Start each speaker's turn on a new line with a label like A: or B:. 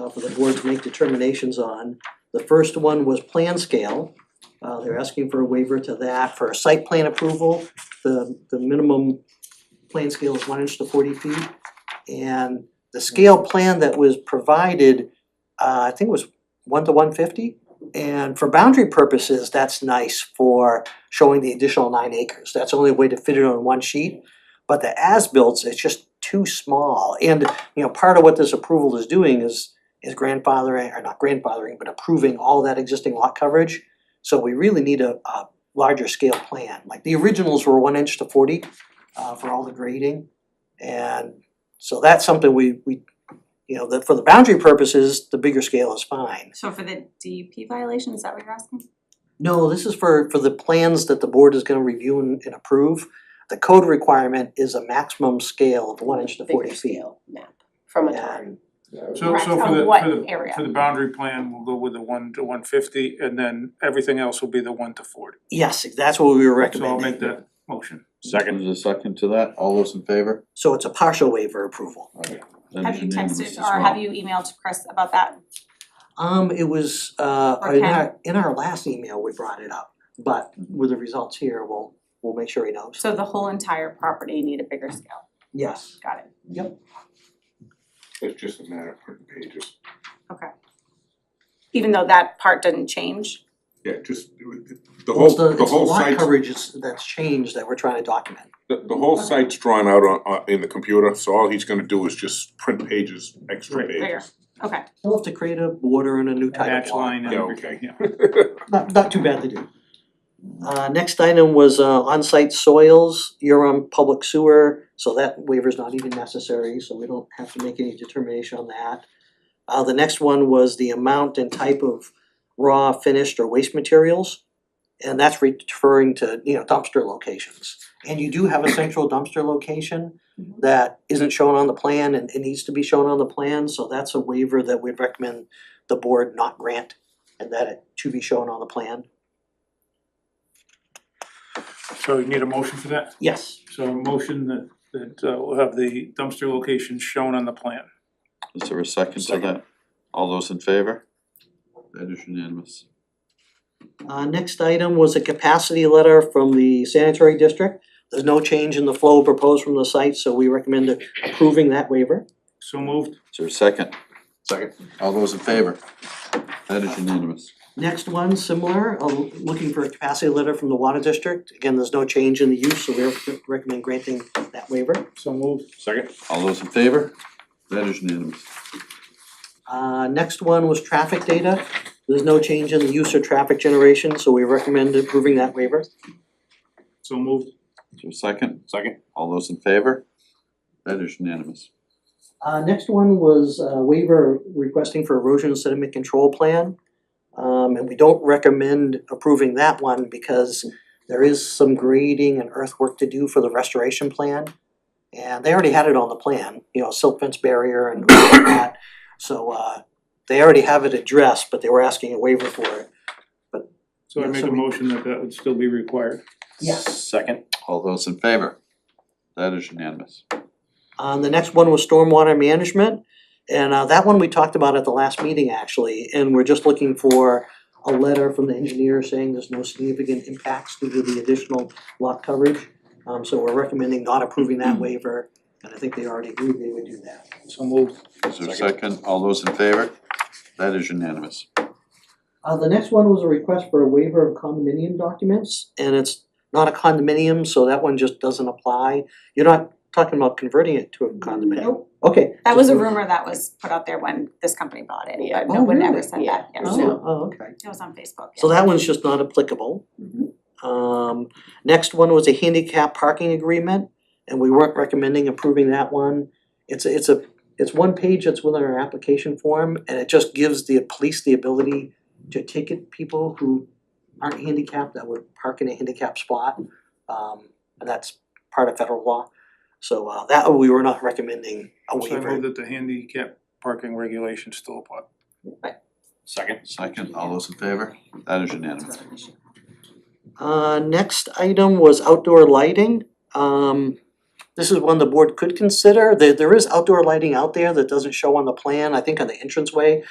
A: uh, for the board to make determinations on. The first one was plan scale. Uh, they're asking for a waiver to that for a site plan approval. The, the minimum plan scale is one inch to forty feet. And the scale plan that was provided, uh, I think it was one to one fifty. And for boundary purposes, that's nice for showing the additional nine acres. That's the only way to fit it on one sheet. But the as-built, it's just too small. And, you know, part of what this approval is doing is, is grandfathering, or not grandfathering, but approving all that existing lot coverage. So we really need a, a larger scale plan. Like the originals were one inch to forty, uh, for all the grading. And so that's something we, we, you know, that for the boundary purposes, the bigger scale is fine.
B: So for the DEP violation, is that what you're asking?
A: No, this is for for the plans that the board is gonna review and and approve. The code requirement is a maximum scale of one inch to forty
C: Bigger
A: feet.
C: scale map from a
A: Yeah.
C: drawing.
D: So
B: Right,
D: so
B: on
D: for the
B: what
D: for the
B: area?
D: for the boundary plan, we'll go with the one to one fifty and then everything else will be the one to forty.
A: Yes, that's what we were recommending.
D: So I'll make that motion.
E: Second is a second to that, all those in favor?
A: So it's a partial waiver approval.
E: That
B: Have
E: is
B: you
E: unanimous
B: texted
E: as
B: or
E: well.
B: have you emailed Chris about that?
A: Um, it was uh
B: Or
A: in
B: can-
A: our in our last email, we brought it up, but with the results here, we'll we'll make sure he knows.
B: So the whole entire property need a bigger scale,
A: Yes,
B: got it.
F: It's just a matter of putting pages,
B: Even though that part doesn't change,
F: yeah, just, the
A: well,
F: whole,
A: it's the
F: the
A: it's the
F: whole
A: lot
F: site's,
A: coverage is that's changed that we're trying to document.
F: the, the whole site's drawn out on, on, in the computer, so all he's gonna do is just print pages, extra
D: Right.
B: There.
F: pages.
B: okay,
A: We'll have to create a border and a new type of
D: Match
A: lot.
D: line and
F: Yeah,
D: everything, yeah.
A: not not too bad to do. Uh next item was uh on-site soils, you're on public sewer, so that waiver's not even necessary, so we don't have to make any determination on that. Uh the next one was the amount and type of raw finished or waste materials. And that's referring to, you know, dumpster locations. And you do have a central dumpster location
B: Mhm.
A: that isn't shown on the plan and it needs to be shown on the plan, so that's a waiver that we'd recommend the board not grant and that it to be shown on the plan.
D: So you need a motion for that?
A: Yes.
D: So a motion that that uh will have the dumpster location shown on the plan.
E: Is there a second to that? All those in favor? That is unanimous.
A: Uh, next item was a capacity letter from the sanitary district. There's no change in the flow proposed from the site, so we recommend approving that waiver.
D: So moved,
E: Is there a second?
F: Second.
E: All those in favor? That is unanimous.
A: Next one, similar, uh, looking for a capacity letter from the water district. Again, there's no change in the use, so we rec- recommend granting that waiver.
D: so moved,
F: Second.
E: All those in favor? That is unanimous.
A: Uh, next one was traffic data. There's no change in the use or traffic generation, so we recommend approving that waiver.
D: so moved,
E: Is there a second?
F: Second.
E: All those in favor? That is unanimous.
A: Uh, next one was uh, waiver requesting for erosion sediment control plan. Um, and we don't recommend approving that one because there is some grading and earthwork to do for the restoration plan. And they already had it on the plan, you know, silt fence barrier and all of that. So, uh, they already have it addressed, but they were asking a waiver for it.
D: so I
A: Yeah,
D: make
A: so
D: a
A: we-
D: motion that that would still be required.
A: Yes.
E: Second. All those in favor? That is unanimous.
A: Um, the next one was stormwater management. And, uh, that one we talked about at the last meeting actually, and we're just looking for a letter from the engineer saying there's no significant impacts due to the additional lot coverage. Um, so we're recommending not approving that waiver, and I think they already agreed they would do that.
D: So moved,
E: Is there a second? All those in favor? That is unanimous.
A: Uh, the next one was a request for a waiver of condominium documents, and it's not a condominium, so that one just doesn't apply. You're not talking about converting it to a condominium?
C: Nope.
A: Okay.
B: that was a rumor that was put out there when this company bought it,
C: Yeah.
B: but no
A: Oh,
B: one ever
A: really?
B: said that, yes,
C: Yeah.
A: Oh, oh, okay.
B: it was on Facebook,
A: So
B: yeah.
A: that one's just not applicable. Um, next one was a handicap parking agreement, and we weren't recommending approving that one. It's, a- it's a, it's one page that's within our application form, and it just gives the police the ability to ticket people who aren't handicapped that would park in a handicap spot. Um, and that's part of federal law. So, uh, that, we were not recommending a
D: so I move
A: waiver.
D: that the handicap parking regulations still apply.
E: Second. Second. All those in favor? That is unanimous.
A: Uh, next item was outdoor lighting. Um, This is one the board could consider, there there is outdoor lighting out there that doesn't show on the plan, I think on the entranceway,